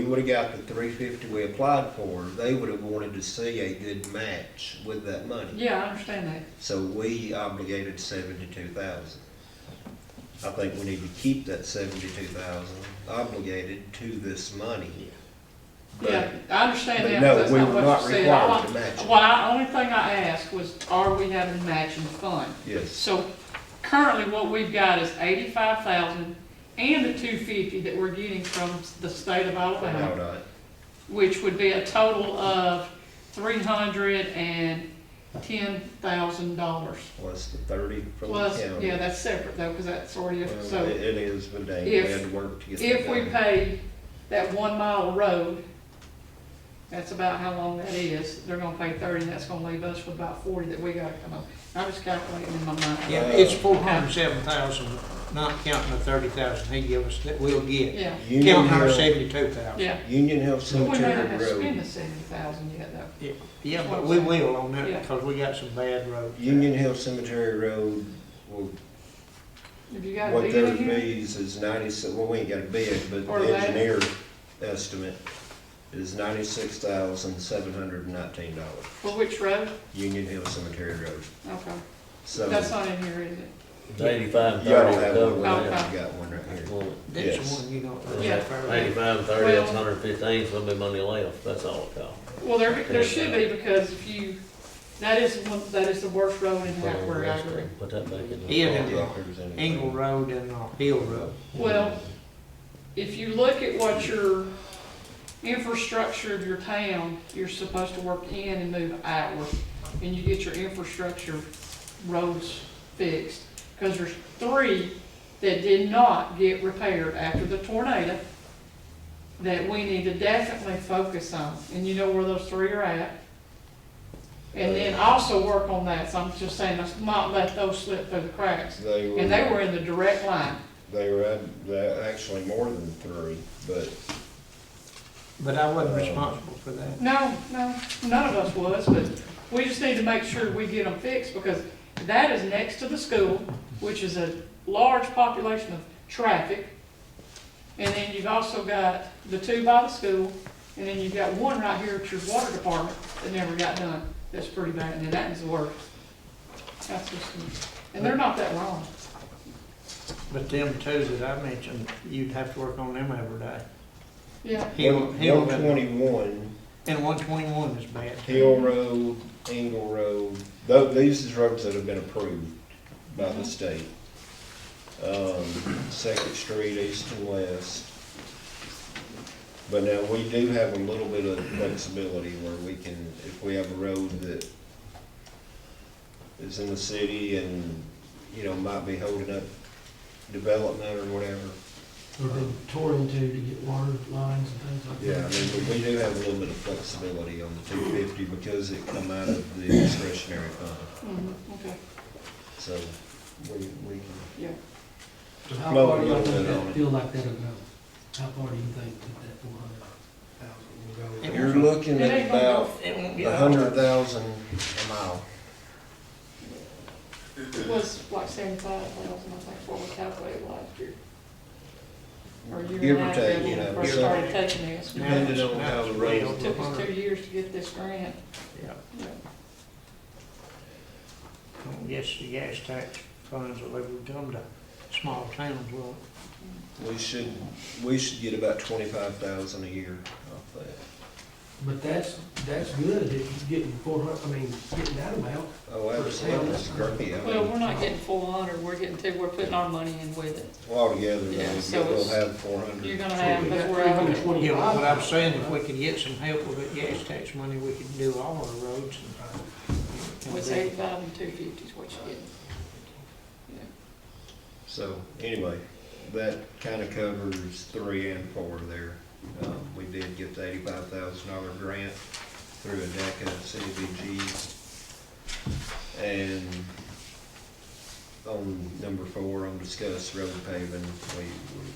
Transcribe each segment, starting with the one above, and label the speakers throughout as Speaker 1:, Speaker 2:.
Speaker 1: We would've got the three fifty we applied for, they would've wanted to see a good match with that money.
Speaker 2: Yeah, I understand that.
Speaker 1: So we obligated seventy-two thousand. I think we need to keep that seventy-two thousand obligated to this money. But-
Speaker 2: Yeah, I understand
Speaker 1: But
Speaker 2: that,
Speaker 1: no,
Speaker 2: but that's
Speaker 1: we
Speaker 2: not
Speaker 1: were
Speaker 2: what
Speaker 1: not
Speaker 2: you said. All
Speaker 1: required to
Speaker 2: I-
Speaker 1: match it.
Speaker 2: What I, only thing I asked was, are we having a matching fund?
Speaker 1: Yes,
Speaker 2: So currently what we've got is eighty-five thousand and the two fifty that we're getting from the state of
Speaker 1: no,
Speaker 2: Alabama,
Speaker 1: not,
Speaker 2: which would be a total of three hundred and ten thousand dollars.
Speaker 1: plus the thirty from the
Speaker 2: Plus,
Speaker 1: county.
Speaker 2: yeah, that's separate though, because that's already,
Speaker 1: Well,
Speaker 2: so.
Speaker 1: It it is, but they we
Speaker 2: if-
Speaker 1: had to work to get that
Speaker 2: If we
Speaker 1: done.
Speaker 2: pay that one mile road, that's about how long that is, they're gonna pay thirty, and that's gonna leave us with about forty that we gotta come up. I'm just calculating in my mind.
Speaker 3: Yeah, it's four hundred and seven thousand, not counting the thirty thousand he gave us that we'll get.
Speaker 2: Yeah,
Speaker 1: Union
Speaker 3: Counting our
Speaker 1: Hill,
Speaker 3: seventy-two thousand.
Speaker 2: yeah.
Speaker 1: Union Hill
Speaker 2: We may not
Speaker 1: Cemetery
Speaker 2: have spent
Speaker 1: Road,
Speaker 2: the seventy thousand yet though.
Speaker 3: Yeah, but we will on that, because we got some bad roads.
Speaker 1: Union Hill Cemetery Road will
Speaker 2: Have you got a
Speaker 1: What
Speaker 2: deal
Speaker 1: their
Speaker 2: in here?
Speaker 1: fees is ninety-six, well, we ain't got a bid, but
Speaker 2: Or
Speaker 1: the
Speaker 2: that.
Speaker 1: engineer estimate is ninety-six thousand, seven hundred and nineteen dollars,
Speaker 2: For which road?
Speaker 1: Union Hill Cemetery Road.
Speaker 2: Okay,
Speaker 1: So, you
Speaker 2: that's not in here, is it?
Speaker 4: Eighty-five
Speaker 1: already
Speaker 4: thirty
Speaker 1: have one, we
Speaker 4: cover.
Speaker 2: Okay.
Speaker 1: already got one right here.
Speaker 3: That's
Speaker 1: Yes.
Speaker 3: the one you don't.
Speaker 2: Yeah.
Speaker 4: Eighty-five thirty, that's
Speaker 2: Well-
Speaker 4: hundred fifteen, so there'll be money left, that's all it costs.
Speaker 2: Well, there, there should be, because if you, that is, one that is the worst road in Hackberry, I agree.
Speaker 4: Put that back in. the-
Speaker 3: Yeah, then-
Speaker 1: Doctors and-
Speaker 3: Engle Road and uh, Hill Road.
Speaker 2: Well, if you look at what your infrastructure of your town, you're supposed to work in and move outward, and you get your infrastructure roads fixed. Because there's three that did not get repaired after the tornado that we need to definitely focus on, and you know where those three are at. And then also work on that, so I'm just saying, let's not let those slip through the cracks.
Speaker 1: They were,
Speaker 2: And they were in the direct line.
Speaker 1: they were, at- they're actually more than three, but
Speaker 3: But I wasn't responsible for that.
Speaker 2: No, no, none of us was, but we just need to make sure we get them fixed, because that is next to the school, which is a large population of traffic. And then you've also got the two by the school, and then you've got one right here at your water department that never got done. That's pretty bad, and that is the worst. That's just, and they're not that long.
Speaker 3: But them two that I mentioned, you'd have to work on them every day.
Speaker 2: Yeah,
Speaker 3: Hill, Hill,
Speaker 1: one
Speaker 3: Road.
Speaker 1: twenty-one,
Speaker 3: and one twenty-one is bad.
Speaker 1: Hill Road, Engle Road, tho- these is roads that have been approved by the state. Um, Second Street, east and west. But now, we do have a little bit of flexibility where we can, if we have a road that is in the city and, you know, might be holding up development or whatever.
Speaker 5: They've been tore into to get water lines and things like
Speaker 1: Yeah, I
Speaker 5: that.
Speaker 1: mean, but we do have a little bit of flexibility on the two fifty because it come out of the discretionary fund.
Speaker 2: mhm, okay,
Speaker 1: So we, we can,
Speaker 2: yeah.
Speaker 5: So how
Speaker 1: Well,
Speaker 5: far do y'all
Speaker 1: we'll
Speaker 5: think
Speaker 1: put it on
Speaker 5: that
Speaker 1: it.
Speaker 5: feel like that'll go? How far do you think that that four hundred thousand will go?
Speaker 3: It-
Speaker 1: you're looking
Speaker 2: It
Speaker 1: at
Speaker 2: ain't gonna go-
Speaker 1: about
Speaker 3: It won't get
Speaker 1: a hundred thousand a mile.
Speaker 2: It was like seventy-five thousand, I think, what we calculated last year. Or you
Speaker 1: Give
Speaker 2: and
Speaker 1: or
Speaker 2: I
Speaker 1: take, you
Speaker 2: did when
Speaker 1: know,
Speaker 2: we first
Speaker 1: give or
Speaker 2: started taking this.
Speaker 3: Yeah,
Speaker 1: Depending
Speaker 3: that's-
Speaker 1: on how the
Speaker 3: that's
Speaker 1: roads
Speaker 3: well
Speaker 2: It took us
Speaker 3: over.
Speaker 2: two years to get this grant.
Speaker 3: Yeah.
Speaker 2: Yeah.
Speaker 3: I guess the gas tax funds that we've come to small towns will.
Speaker 1: We should, we should get about twenty-five thousand a year off that.
Speaker 5: But that's, that's good if you're getting four hundred, I mean, getting that amount.
Speaker 1: Oh, absolutely, that's great. I
Speaker 2: Well,
Speaker 1: mean,
Speaker 2: we're not getting four hundred, we're getting two, we're putting our money in with it.
Speaker 1: altogether, though,
Speaker 2: Yeah, so
Speaker 1: we'll
Speaker 2: it's-
Speaker 1: have four hundred.
Speaker 2: You're gonna have, but we're
Speaker 5: Three hundred
Speaker 2: out.
Speaker 3: Yeah,
Speaker 5: twenty-five.
Speaker 3: but what I'm saying, if we could get some help with that gas tax money, we could do all our roads uh, and.
Speaker 2: It's eighty-five and two fifty is what you're getting. Yeah.
Speaker 1: So anyway, that kind of covers three and four there. Um, we did get the eighty-five thousand dollar grant through ADECA and CDBG. And on number four, on discuss road paving, we, we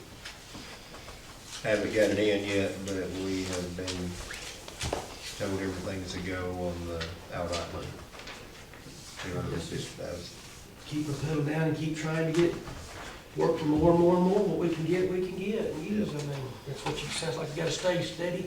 Speaker 1: haven't got it in yet, but we have been told everything's a go on the outright money. Two hundred and fifty thousand.
Speaker 5: Keep the pedal down and keep trying to get work for more and more and more, what we can get, we can get, and use, I mean, that's what you, sounds like you gotta stay steady